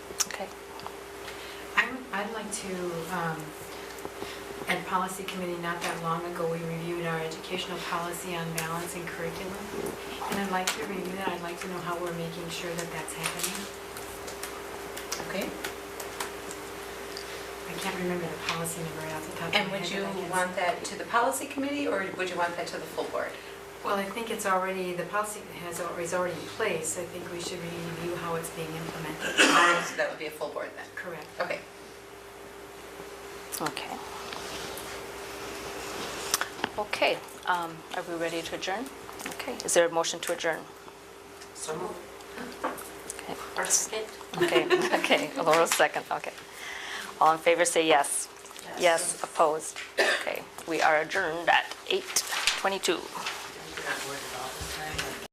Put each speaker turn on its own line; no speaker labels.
like to, um, at policy committee not that long ago, we reviewed our educational policy on balance and curriculum. And I'd like to review that, I'd like to know how we're making sure that that's happening.
Okay.
I can't remember the policy number off the top of my head.
And would you
but I can-
want that to the policy committee, or would you want that to the full board?
Well, I think it's already, the policy has, al- is already in place. I think we should review how it's being implemented.
So that would be a full board then?
Correct.
Okay.
Okay. Okay, um, are we ready to adjourn? Okay, is there a motion to adjourn?
So
Okay. Okay, okay, Laurel second, okay. All in favor, say yes. Yes, opposed. Okay, we are adjourned at 8:22.